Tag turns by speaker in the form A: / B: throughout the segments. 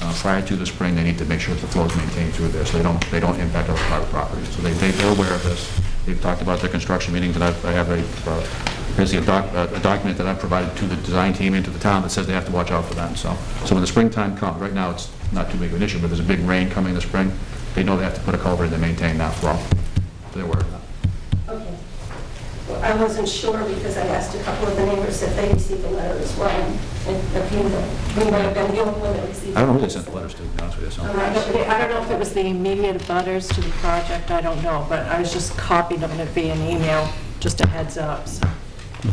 A: Uh, prior to the spring, they need to make sure that the flow is maintained through there, so they don't, they don't impact other private properties. So they, they- they're aware of this. They've talked about their construction meetings, and I've- I have a, uh, basically a doc, a a document that I provided to the design team and to the town that says they have to watch out for that, so. So when the springtime comes, right now, it's not too big of an issue, but there's a big rain coming this spring, they know they have to put a culvert in to maintain that flow. They're aware of that.
B: Okay. Well, I wasn't sure because I asked a couple of the neighbors if they received a letter as well, and if you, we might have been the only one that received.
A: I don't know who they sent the letters to, to be honest with you, so.
B: Um,
C: I don't I don't know if it was the immediate butters to the project, I don't know, but I was just copied on it via an email, just a heads up, so.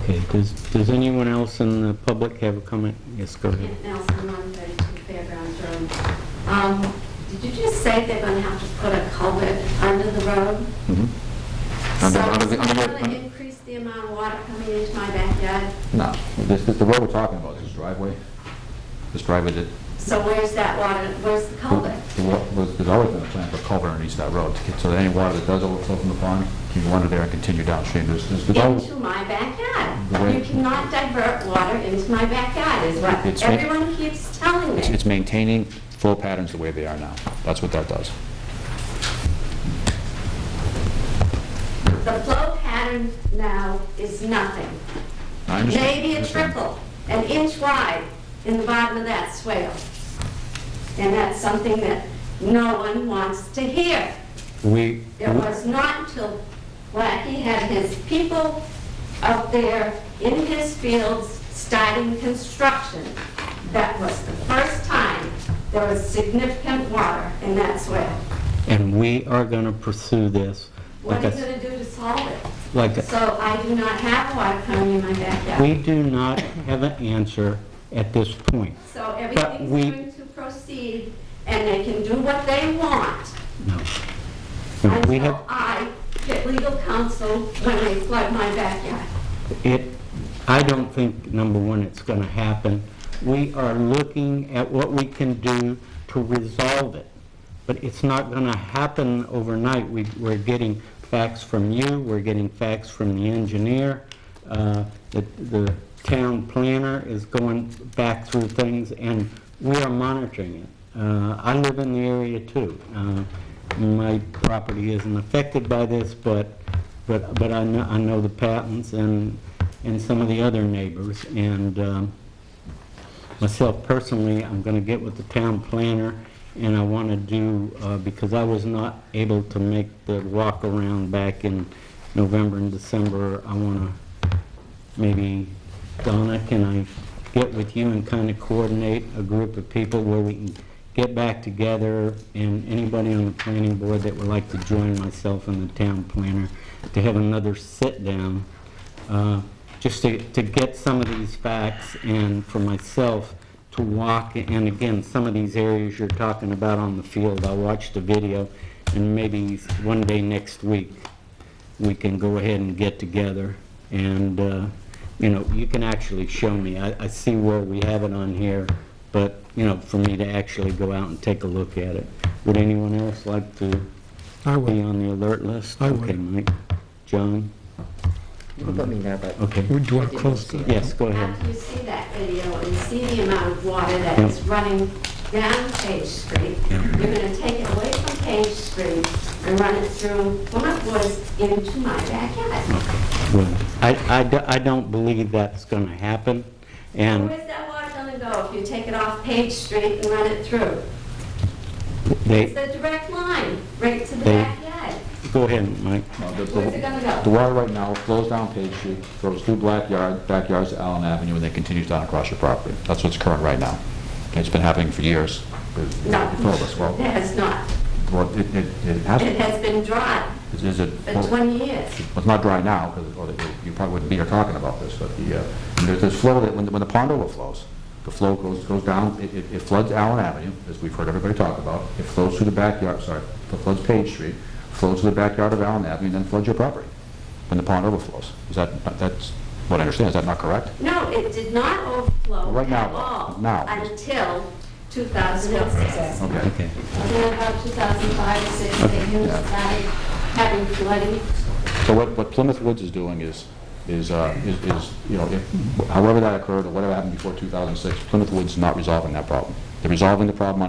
D: Okay, does, does anyone else in the public have a comment? Yes, go ahead.
E: Nelson, 132 Fairgrounds Road. Um, Did you just say they're going to have to put a culvert under the road?
A: Mhm. Under- under the- under
E: So
A: the-
E: it's going to increase the amount of water coming into my backyard?
A: No, this, this- the road we're talking about, this driveway, this driveway that,
E: So where's that water, where's the culvert?
A: the wa- was- there's always been a plan for culvert underneath that road, to get- so that any water that does overflow from the pond can go under there and continue downstream. There's, there's, there's always-
E: Into my
A: The way-
E: backyard. You cannot divert water into my backyard, is what
A: It's ma-
E: everyone keeps telling
A: it's,
E: me.
A: it's maintaining flow patterns the way they are now. That's what that does.
E: The flow pattern now is nothing.
A: I understand.
E: maybe a
A: Understand.
E: triple, an inch wide in the bottom of that swale. And that's something that no one wants to hear.
D: We,
E: It
A: Hmm?
E: was not until Wacky had his people up there in his fields starting construction. That was the first time there was significant water in that swale.
D: and we are gonna pursue this.
E: What
D: Like
E: are
D: I
E: you
D: s-
E: gonna do to solve it?
D: Like, I-
E: So I do not have water coming in my backyard.
D: we do not have an answer at this point.
E: So
D: But
E: everything's
D: we-
E: going to proceed, and they can do what they want
D: No. No, we have,
E: until I get legal counsel when they flood my backyard.
D: it, I don't think, number one, it's gonna happen. We are looking at what we can do to resolve it, but it's not gonna happen overnight. We, we're getting facts from you, we're getting facts from the engineer, uh, the, the town planner is going back through things, and we are monitoring it. Uh, I live in the area too. Uh, My property isn't affected by this, but but, but I know, I know the patents and, and some of the other neighbors, and um, myself personally, I'm gonna get with the town planner, and I wanna do, uh, because I was not able to make the walk around back in November and December, I wanna, maybe, Donna, can I get with you and kinda coordinate a group of people where we can get back together, and anybody on the planning board that would like to join myself and the town planner, to have another sit-down, uh, just to, to get some of these facts and for myself to walk, and again, some of these areas you're talking about on the field, I'll watch the video, and maybe one day next week, we can go ahead and get together, and, uh, you know, you can actually show me, I, I see where we have it on here, but, you know, for me to actually go out and take a look at it. Would anyone else like to
F: I
D: be
F: would.
D: on the alert list?
F: I would.
D: Okay, Mike, John,
G: You can put me there, but
D: okay.
F: Would you want to close the...
D: Yes, go ahead.
E: After you see that video and see the amount of water that is running down Page Street, you're gonna take it away from Page Street and run it through Plymouth Woods into my backyard.
D: Well, I, I do- I don't believe that's going to happen, and
E: Where's that water gonna go if you take it off Page Street and run it through? It's
D: they,
E: the direct line, right to the
D: They-
E: backyard.
D: go ahead, Mike.
A: Well, the- the-
E: Where's it gonna
A: The
E: go?
A: water right now flows down Page Street, goes through Blackyard, backyards to Allen Avenue, and then continues down across your property. That's what's current right now. It's been happening for years.
E: No.
A: For all of us, well,
E: It has not.
A: well, it, it it
E: It
A: has,
E: has been dry
A: is- is it?
E: for
A: well,
E: 20 years.
A: Well, it's not dry now, because you probably wouldn't be here talking about this, but the, uh, there's this flow that, when the when the pond overflows, the flow goes, goes down, it- it it floods Allen Avenue, as we've heard everybody talk about, it flows through the backyard, sorry, it floods Page Street, flows through the backyard of Allen Avenue, and then floods your property, when the pond overflows. Is that, that's what I understand, is that not correct?
E: No, it did not overflow
A: Right now,
E: at all.
A: now.
E: Until 2006.
A: Okay.
D: Okay.
E: Until about 2005 or 6, they knew
A: Yeah.
E: started having flooding.
A: So what what Plymouth Woods is doing is, is, uh, is, is, you know, if- however that occurred, or whatever happened before 2006, Plymouth Woods is not resolving that problem. They're resolving the problem on